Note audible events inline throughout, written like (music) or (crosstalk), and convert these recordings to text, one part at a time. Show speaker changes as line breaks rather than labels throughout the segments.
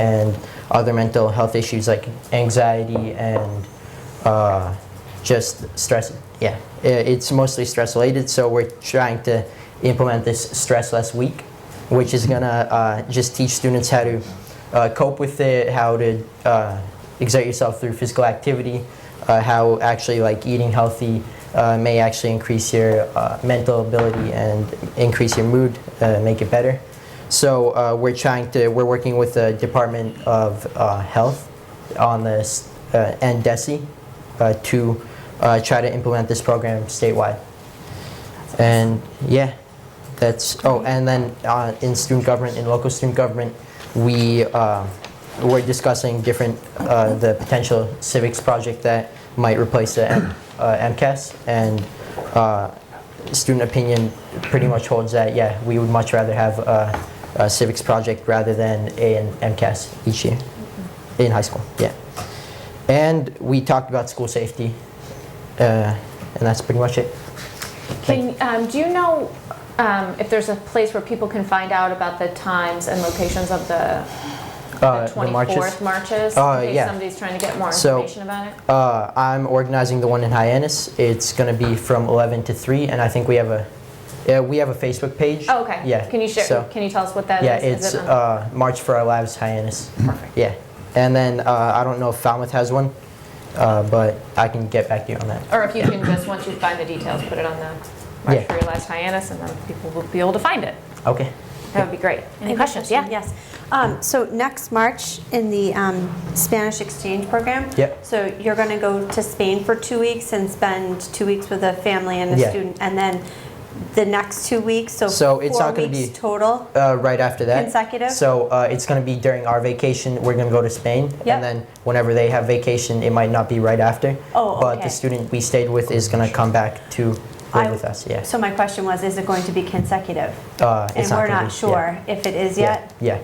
and other mental health issues like anxiety and uh, just stress. Yeah, I- it's mostly stress related. So we're trying to implement this stress less week, which is gonna uh, just teach students how to uh, cope with it, how to uh, exert yourself through physical activity, uh, how actually like eating healthy. Uh, may actually increase your uh, mental ability and increase your mood, uh, make it better. So uh, we're trying to, we're working with the Department of uh, Health on this, uh, and DESE, uh, to uh, try to implement this program statewide. And, yeah, that's, oh, and then uh, in student government, in local student government, we, uh, we're discussing different, uh, the potential civics project that might replace the M- uh, MCAS, and uh, student opinion pretty much holds that, yeah, we would much rather have uh, a civics project rather than A and MCAS each year in high school, yeah. And we talked about school safety, uh, and that's pretty much it.
Can, um, do you know um, if there's a place where people can find out about the times and locations of the
Uh,
the
the marches.
24th marches?
Uh,
In
yeah.
case somebody's trying to get more
So-
information about it?
Uh, I'm organizing the one in Hyannis. It's going to be from 11 to 3, and I think we have a yeah, we have a Facebook page.
Oh, okay.
yeah,
Can you share,
so-
can you tell us what that is?
yeah,
Is
it's
it on-
uh, March for Our Lives Hyannis.
Perfect.
Yeah, and then uh, I don't know if Falmouth has one, uh, but I can get back to you on that.
Or if you can just, once you find the details, put it on the
Yeah.
March for Your Last Hyannis, and then people will be able to find it.
Okay.
That would be great. Any questions? Yeah?
Yes. Um, So next March in the um, Spanish exchange program.
Yep.
So you're going to go to Spain for two weeks and spend two weeks with a family and
Yeah.
a student. And then the next two weeks, so
So it's
four
not gonna
weeks
be-
total.
Uh, right after that.
Consecutive?
So uh, it's going to be during our vacation. We're going to go to Spain,
Yep.
and then whenever they have vacation, it might not be right after.
Oh,
But
okay.
the student we stayed with is going to come back to live
I-
with us. Yeah.
So my question was, is it going to be consecutive?
Uh,
And
it's
we're
gonna
not
be-
sure if it is
Yeah.
yet.
Yeah.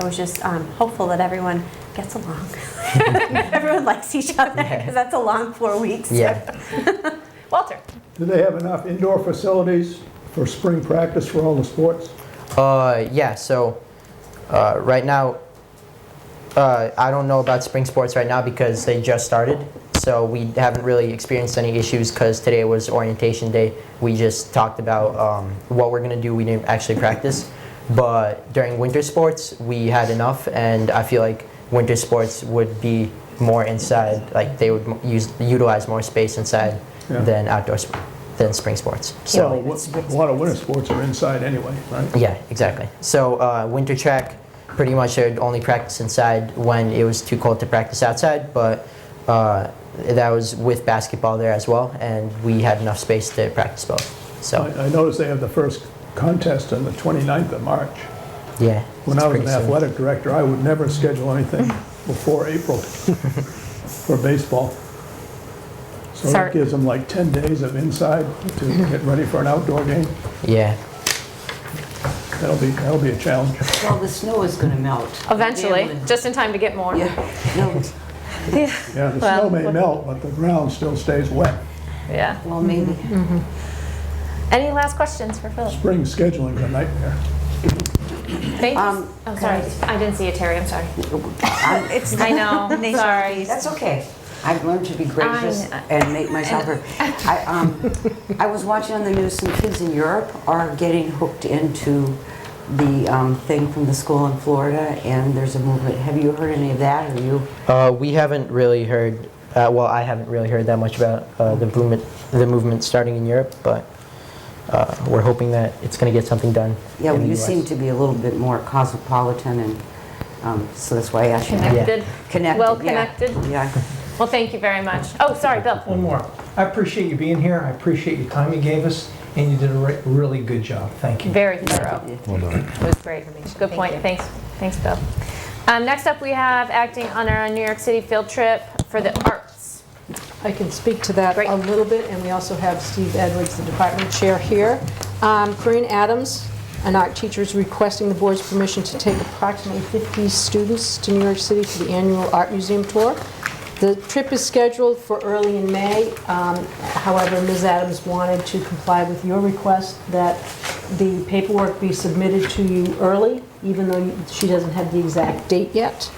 I was just um, hopeful that everyone gets along. (laughs) Everyone likes each other
Yeah.
because that's a long four weeks.
Yeah.
Walter?
Do they have enough indoor facilities for spring practice for all the sports?
yeah. Uh, yeah. So uh, right now, uh, I don't know about spring sports right now because they just started. So we haven't really experienced any issues because today was orientation day. We just talked about um, what we're gonna do. We didn't actually practice, but during winter sports we had enough, and I feel like winter sports would be more inside. Like they would m- use utilize more space inside
Yeah.
than outdoor sp- than spring sports. So.
Well, wh- a lot of winter sports are inside anyway, right?
Yeah, exactly. So uh, winter track, pretty much I'd only practice inside when it was too cold to practice outside, but uh, that was with basketball there as well, and we had enough space to practice both. So
I I noticed they have the first contest on the 29th of March.
yeah,
When
it's
I was
pretty
an
soon.
athletic director, I would never schedule
(laughs)
anything before April for baseball. So
Sorry.
that gives them like 10 days of inside to get ready for an outdoor game.
Yeah,
That'll be, that'll be a challenge.
Well, the snow is going to melt.
Eventually,
Damn,
just in time to get more.
Yeah, no,
Yeah, the
Well,
snow may
what-
melt, but the ground still stays wet.
Yeah.
well, maybe.
Any last questions for Philip?
Spring scheduling's a nightmare.
Thanks.
Um,
I'm sorry. I didn't see you, Terry. I'm sorry. (laughs)
It's
I know.
Nature
sorry.
piece.
That's okay. I've learned to be gracious
I-
and make myself heard. I, um, I was watching on the news, some kids in Europe are getting hooked into the um, thing from the school in Florida, and there's a movement. Have you heard any of that? Have you?
uh, we haven't really heard. Uh, well, I haven't really heard that much about uh, the movement, the movement starting in Europe, but uh, we're hoping that it's going to get something done.
Yeah,
in
well,
the
you
US.
seem to be a little bit more cosmopolitan, and um, so that's why I asked you.
Connected.
Connected,
Well
yeah.
connected.
Yeah.
Well, thank you very much. Oh, sorry, Bill.
One more. I appreciate you being here. I appreciate your time you gave us, and you did a re- really good job. Thank you.
Very thorough. It was great. Good point. Thanks, thanks, Bill. Um, next up, we have acting on our New York City field trip for the arts.
I can speak to that
Great.
a little bit, and we also have Steve Edwards, the department chair here. Um, Corinne Adams, an art teacher, is requesting the board's permission to take approximately 50 students to New York City for the annual art museum tour. The trip is scheduled for early in May. Um, However, Ms. Adams wanted to comply with your request that the paperwork be submitted to you early, even though she doesn't have the exact date yet.